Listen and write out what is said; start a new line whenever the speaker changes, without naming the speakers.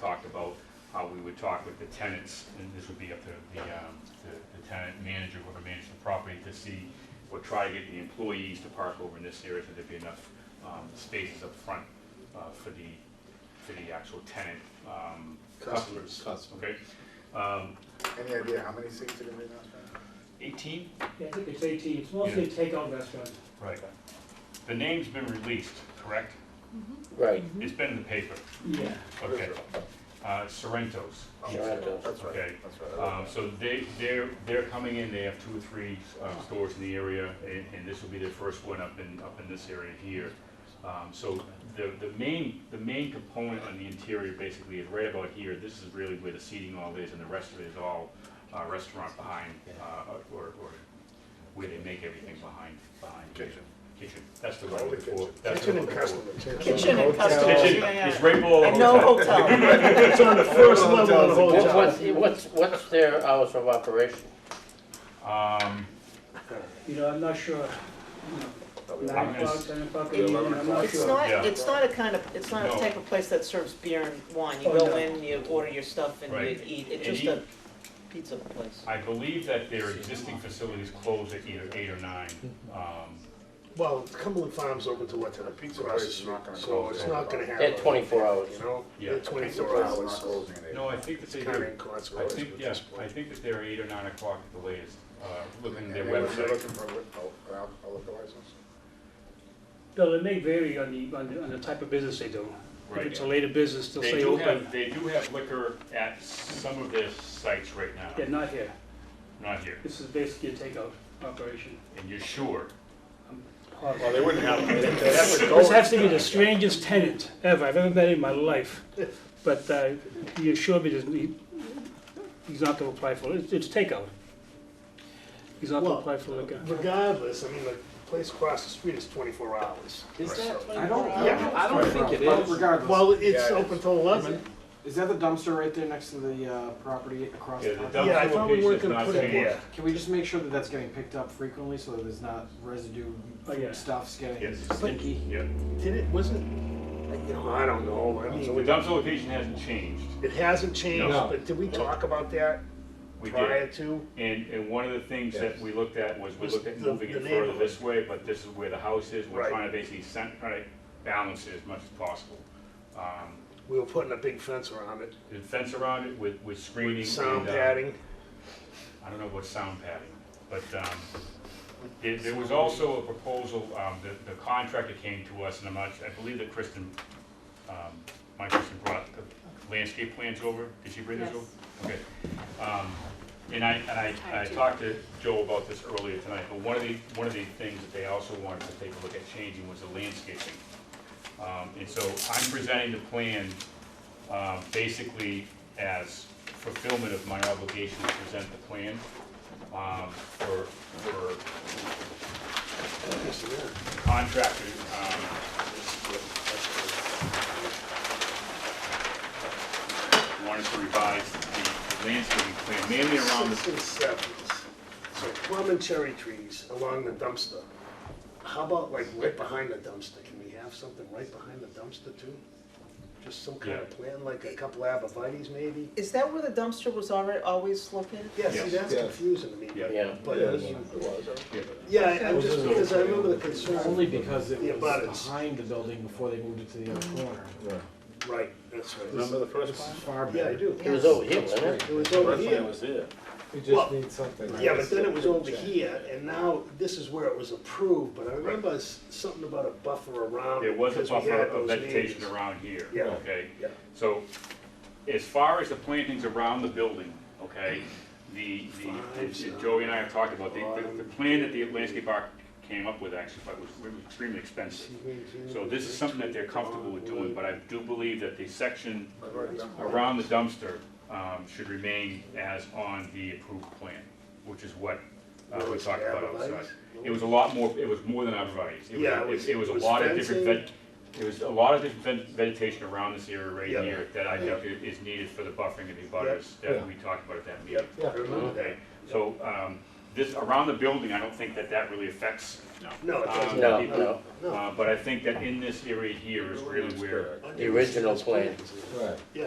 talked about how we would talk with the tenants, and this would be up to the, um, the- the tenant manager, whoever managed the property, to see, or try to get the employees to park over in this area, so there'd be enough, um, spaces up front, uh, for the, for the actual tenant, um, customers.
Customers.
Okay, um,
Any idea how many seats are gonna be in that?
eighteen?
Yeah, I think it's eighteen, it's mostly a takeout restaurant.
Right. The name's been released, correct?
Right,
It's been in the paper,
Yeah.
okay. Uh, Sorrento's.
Sorrento.
That's right,
Okay.
that's right.
Um, so they, they're, they're coming in, they have two or three, um, stores in the area, and, and this will be their first one up in, up in this area here. Um, so the, the main, the main component on the interior basically is right about here, this is really where the seating all is, and the rest of it is all, uh, restaurant behind, uh, or, or where they make everything behind, behind. here.
Kitchen.
Kitchen, that's the
Call
one
it
before.
kitchen.
that's the
Kitchen
one
and
before.
customer.
Kitchen and
hotel.
customer.
Kitchen is right below the
And no
hotel.
hotel.
It's on the first level of the
What-
hotel.
What's, what's, what's their hours of operation?
Um,
You know, I'm not sure, you know,
I'm
nine
gonna
o'clock,
s-
ten o'clock,
It's
in the evening, I'm not
It's
sure.
Yeah.
not, it's not a kind of, it's not
No.
a type of place that serves beer and wine. You
Oh,
go
no.
in, you order your stuff and
Right.
you eat. It's
And
just
you-
a pizza place.
I believe that their existing facilities close at either eight or nine. Um,
Well, Cumberland Farms open to what, to the pizza
Right,
place,
it's not gonna
so
close
it's
at
not
all.
gonna happen.
They're twenty-four hours.
You know,
Yeah.
they're
Pizza
twenty-four
place not
hours, so
closing at eight.
No, I think that they
it's kinda
do. I
inconsequential
think,
at
yeah,
this
I
point.
think that they're eight or nine o'clock at the latest, uh, looking at
And
their
they were- they're
website.
Looking for a, wi- oh, a al- a liquor license?
Bill, it may vary on the, on the, on the type of business they do. If
Right.
it's a later business, they'll
They
say
do
open,
have, they do have liquor at some of their sites right
yeah,
now,
not here.
not here.
This is basically a takeout operation.
And you're sure?
Well,
They wouldn't have, they'd have to
This
go.
has to be the strangest tenant ever I've ever met in my life, but uh, he assured me that he- he's not gonna apply for it, It's- it's takeout. He's not gonna
Well,
apply for like a,
Regardless, I mean, the place across the street is twenty-four hours.
Is that
Right.
I don't,
Yeah.
I don't think it
But
is. Regardless.
Well, it's
Yeah.
open till eleven.
Is that the dumpster right there next to the uh, property across?
Yeah,
the
the
park?
dumpster
Yeah, I thought we
location
weren't
is
gonna
not
put it
changed.
here.
Can we just make sure that that's getting picked up frequently so that there's not residue,
Oh, yeah.
food stuff's getting
Yes.
stinky?
Yeah.
Did it, wasn't, you know, I don't know, I
So the
mean,
dumpster location hasn't changed.
it hasn't changed,
No.
but did we talk about that
We
prior
did.
to?
And, and one of the things that
Yes.
we looked at was, we
Was
looked at
the-
moving
the
it further
neighborhood.
this way, but this is where the house is. We're
Right.
trying to basically cent- try to balance it as much as possible. Um,
We were putting a big fence around it,
The fence around it with, with screening.
sound
and, uh,
padding.
I don't know what sound padding, but um, there there was also a proposal, um, the the contractor came to us, and I'm not, I believe that Kristen, um, my Kristen brought the landscape plans over, did she bring those over? Okay. Um, And I, and I, I talked to Joe about this earlier tonight, but one of the, one of the things that they also wanted to take a look at changing was the landscaping. Um, And so I'm presenting the plan um, basically as fulfillment of my obligation to present the plan um, for, for contractor. um, Wanted to revise the landscaping plan mainly around
Six
the,
and sevens, so plum and cherry trees along the dumpster. How about like right behind the dumpster, can we have something right behind the dumpster too? Just some kind of plan, like a couple abrevieties maybe?
Is that where the dumpster was already, always located?
Yeah, see,
Yes.
that's
Yeah.
confusing to me.
Yeah.
Yeah.
But, uh, yeah, I- I'm just, because I remember the concern,
Only because it
The
was
abutters.
behind the building before they moved it to the other corner.
right, that's right.
Remember the first
This is
one?
far
Yeah, I
better.
do.
It was over here, wasn't it?
It was over here,
was here. We
Well,
just need something.
yeah, but then it was over here, and now this is where it was approved, but I remember s- something about a buffer around.
there
it
was a
because we
buffer
had
of
those
vegetation
neighbors.
around here,
Yeah.
okay?
Yeah.
So as far as the plantings around the building, okay, the, the,
Five,
the- Joey and I have talked about, the, the- the plan that the landscape arc came up with actually, but was extremely expensive. So this is something that they're comfortable with doing, but I do believe that the section
I've already done that.
around the dumpster um, should remain as on the approved plan, which is what uh, we talked about outside. It was a lot more, it was more than arborvitae's. It was-
Yeah, it was-
It was a
it was
lot of different,
fencing.
veg- it was a lot of different veg- vegetation around this area right
Yeah.
here that I think i- is needed for the buffering of the butters
Yeah.
that we talked about at that
Yeah,
meeting.
I remember that.
Okay, so um, this, around the building, I don't think that that really affects
No, it
Um,
doesn't.
No, no,
No.
uh, but I think that in this area here is really where
the original plan.
Right.